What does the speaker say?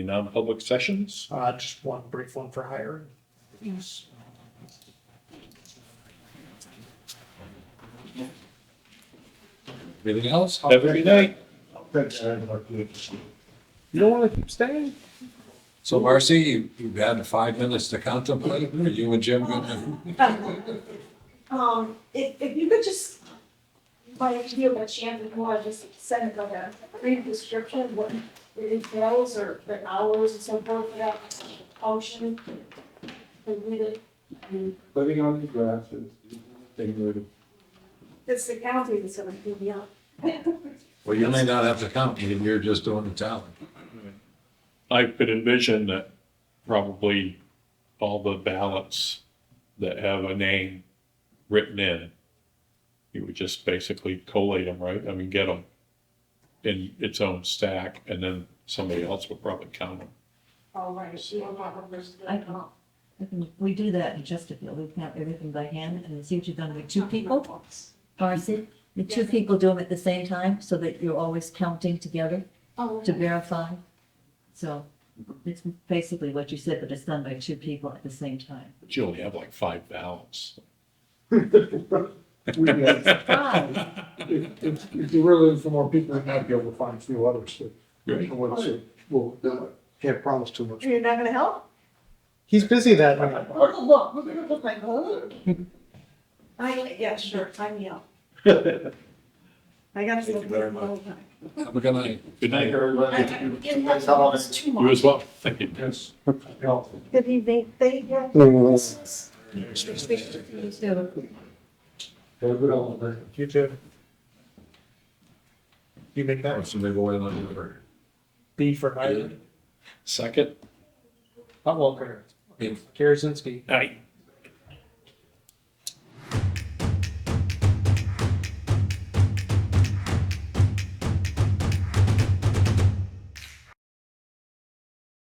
non-public sessions. Uh, just one brief one for hiring. Yes. Anything else? Have a Oh, good night. You don't want to keep staying? So Marcy, you- you've had five minutes to contemplate. Are you and Jim going Um, if, if you could just, by idea what she had before, just send like a brief description, of what it entails, or the hours and so forth, for that function. And read it, I mean, Living on the grass is ignorant. it's the county that's gonna do me up. well, you may not have to come, you're just doing the talent. I could envision that probably all the ballots that have a name written in, you would just basically collate them, right? I mean, get them in its own stack, and then somebody else would probably count them. All right, she will not understand. I can, I can- we do that in Chesterfield, we count everything by hand, and it's usually done with two people, Marcy. The two people do them at the same time, so that you're always counting together Oh, to verify. So it's basically what you said, but it's done by two people at the same time. But you only have like five ballots. We, uh, Wow, If, if, if you really look for more people, you might be able to find a few others that, Right. ones that will do it. Can't promise too much. You're not gonna help? He's busy that night. Oh, look, my God. I, yeah, sure, time me out. I gotta Thank you still very the whole time. Have a good night. Good night. I, I didn't have to lose too You much. as well. Thank you. Yes. Good evening, thank you. You too. You make that Somebody go in on your. B for hiring. Second. Hot Walker. Yep. Karazinski. Aye.